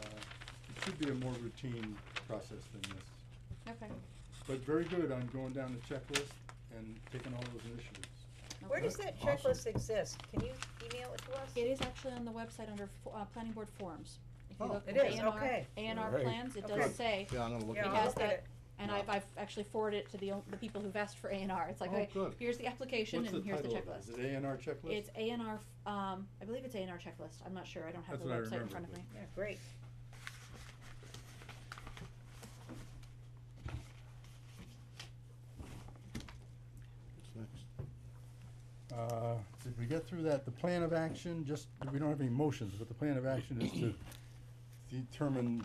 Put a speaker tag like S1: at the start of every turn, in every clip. S1: Uh, should be a more routine process than this.
S2: Okay.
S1: But very good on going down the checklist and taking all those initiatives.
S3: Where
S2: Okay.
S3: does that
S4: Awesome.
S3: checklist exist? Can you email it to us?
S2: It is actually on the website under, fo- uh, planning board forms. If you
S1: Oh.
S2: look
S3: It
S2: at
S3: is,
S2: A&R
S3: okay.
S2: A and R
S4: Right.
S2: plans, it
S3: Okay.
S2: does say,
S4: Yeah, I'm gonna look
S3: Yeah,
S2: it
S3: I'll
S4: at
S2: has
S3: look at
S2: that,
S3: it.
S2: and I've, I've actually forwarded it to the, o- the people who've asked for A and R, it's like,
S4: Oh,
S2: okay,
S4: good.
S2: here's the application
S1: What's
S2: and here's the
S1: title of it?
S2: checklist.
S1: Is it A and R checklist?
S2: It's A and R, f- um, I believe it's A and R checklist, I'm not sure, I don't have
S1: That's
S2: the
S1: what I
S2: website in
S1: remember,
S2: front of
S1: but-
S2: me.
S3: Yeah, great.
S4: What's next? Oh,
S1: Uh, did we get through that? The plan of action, just, we don't have any motions, but the plan of action is to determine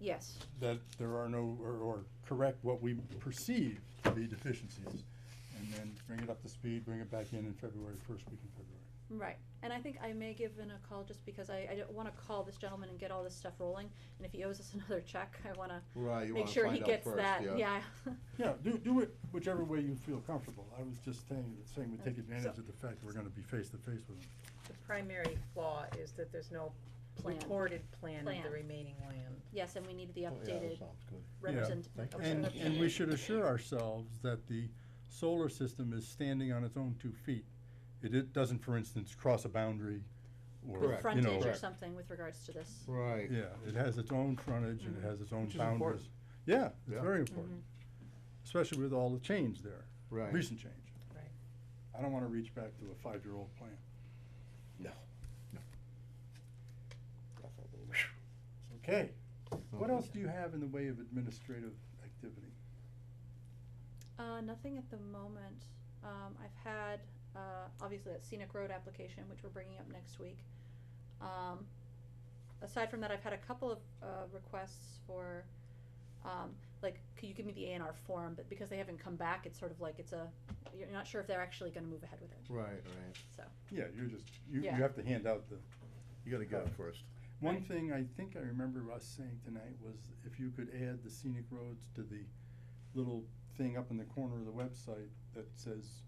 S2: Yes.
S1: that there are no, or, or correct what we perceive to be deficiencies. And then bring it up to speed, bring it back in in February, first week in February.
S2: Right, and I think I may give in a call just because I, I don't wanna call this gentleman and get all this stuff rolling, and if he owes us another check, I wanna
S4: Right, you
S2: make
S4: wanna
S2: sure he
S4: find out
S2: gets
S4: first,
S2: that,
S4: yeah.
S2: yeah.
S1: Yeah, do, do it whichever way you feel comfortable. I was just saying, saying we take
S2: Okay.
S1: advantage of the fact that we're gonna be face to face with them.
S3: The primary flaw is that there's no
S2: Plan.
S3: recorded plan of the
S2: Plan.
S3: remaining land.
S2: Yes, and we need the
S4: Oh, yeah, that
S2: updated
S4: Sounds good.
S2: represent.
S4: Thank you.
S1: And,
S2: representation.
S1: and we should assure ourselves that the solar system is standing on its own two feet. It, it doesn't, for instance, cross a boundary or, you
S4: Correct.
S1: know.
S2: Frontage or
S4: Correct.
S2: something with regards to this.
S4: Right.
S1: Yeah, it has its own frontage and
S2: Mhm.
S1: it has its own
S4: Which is important.
S1: boundaries. Yeah, it's
S4: Yeah.
S1: very important, especially with all the change there,
S4: Right.
S1: recent change.
S3: Right.
S1: I don't wanna reach back to a five-year-old plan.
S4: No.
S1: Okay, what
S4: Okay.
S1: else do you have in the way of administrative activity?
S2: Uh, nothing at the moment. Um, I've had, uh, obviously that scenic road application, which we're bringing up next week. Um, aside from that, I've had a couple of, uh, requests for, um, like, could you give me the A and R form, but because they haven't come back, it's sort of like it's a, you're not sure if they're actually gonna move ahead with it,
S4: Right, right.
S2: so.
S1: Yeah, you're just, you, you
S2: Yeah.
S1: have to hand out the
S4: You gotta get
S1: Uh,
S4: it first.
S1: One
S2: Right.
S1: thing I think I remember us saying tonight was if you could add the scenic roads to the little thing up in the corner of the website that says,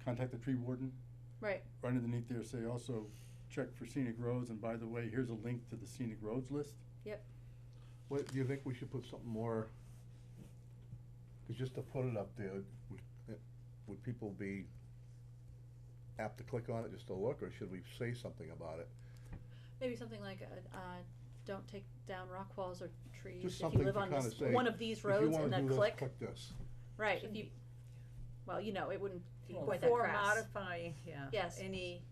S1: contact the tree warden.
S2: Right.
S1: Right underneath there say also, check for scenic roads, and by the way, here's a link to the scenic roads list.
S4: What, do you think we should put something more? Cause just to put it up there, would, it- would people be apt to click on it just to look, or should we say something about it?
S2: Maybe something like, uh, uh, don't take down rock walls or trees if you
S4: something
S2: live
S4: to
S2: on
S4: kinda
S2: this,
S4: say,
S2: one of these
S4: If you
S2: roads
S4: wanna
S2: and then
S4: do this,
S2: click,
S4: Click this.
S2: right, if you, well, you know, it wouldn't be
S1: Well,
S2: quite that
S3: Before
S2: crass.
S3: modifying, yeah.
S2: Yes.
S3: Any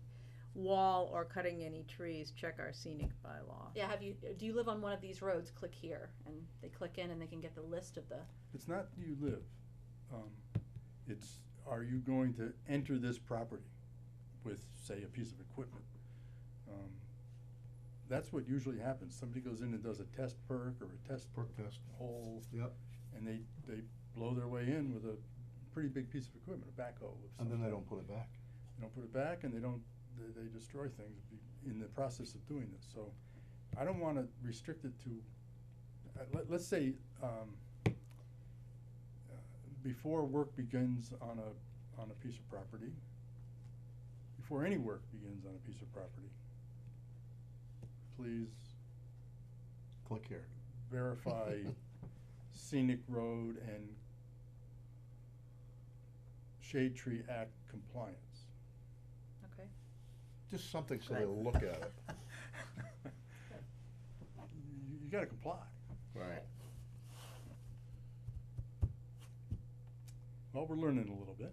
S3: wall or cutting any trees, check our scenic bylaw.
S2: Yeah, have you, do you live on one of these roads, click here, and they click in and they can get the list of the,
S1: It's not do you live, um, it's are you going to enter this property with, say, a piece of equipment? Um, That's what usually happens. Somebody goes in and does a test perk or a test
S4: Perk test.
S1: hole.
S4: Yep.
S1: And they, they blow their way in with a pretty big piece of equipment, a backhoe of some
S4: And then they
S1: type.
S4: don't put it back.
S1: They don't put it back and they don't, they, they destroy things be- in the process of doing this, so I don't wanna restrict it to, uh, let, let's say, um, uh, before work begins on a, on a piece of property, before any work begins on a piece of property, please
S4: Click here.
S1: verify scenic road and shade tree act compliance.
S2: okay,
S4: Just something so they'll look at it.
S1: You, you gotta comply.
S4: Right.
S1: Well, we're learning a little bit.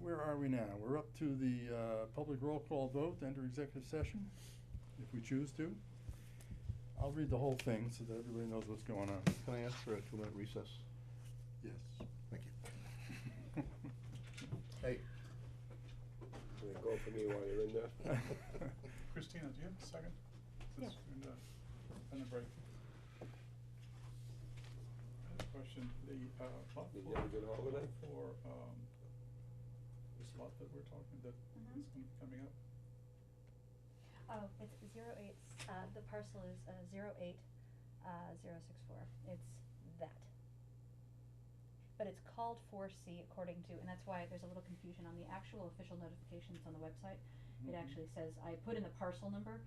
S1: Where are we now? We're up to the, uh, public roll call vote, to enter executive session, if we choose to. I'll read the whole thing so that everybody knows what's going on.
S4: Can I ask for a two-minute recess?
S1: Yes.
S4: Thank you.
S5: And then go for me while you're in there.
S6: Christina, do you have a second?
S2: Yeah.
S6: Since we're in the- on the break. I have a question, the, uh, lot
S5: Did you have a
S6: for,
S5: good holiday?
S6: for, um, this lot that we're talking, that is gonna be coming up,
S7: Mm-hmm. Oh, it's zero eight, uh, the parcel is, uh, zero eight, uh, zero six four, it's that. But it's called four C according to, and that's why there's a little
S6: Mm-hmm.
S1: Mm-hmm.
S7: confusion on the actual official notifications on the website. It actually says, I put in the parcel number,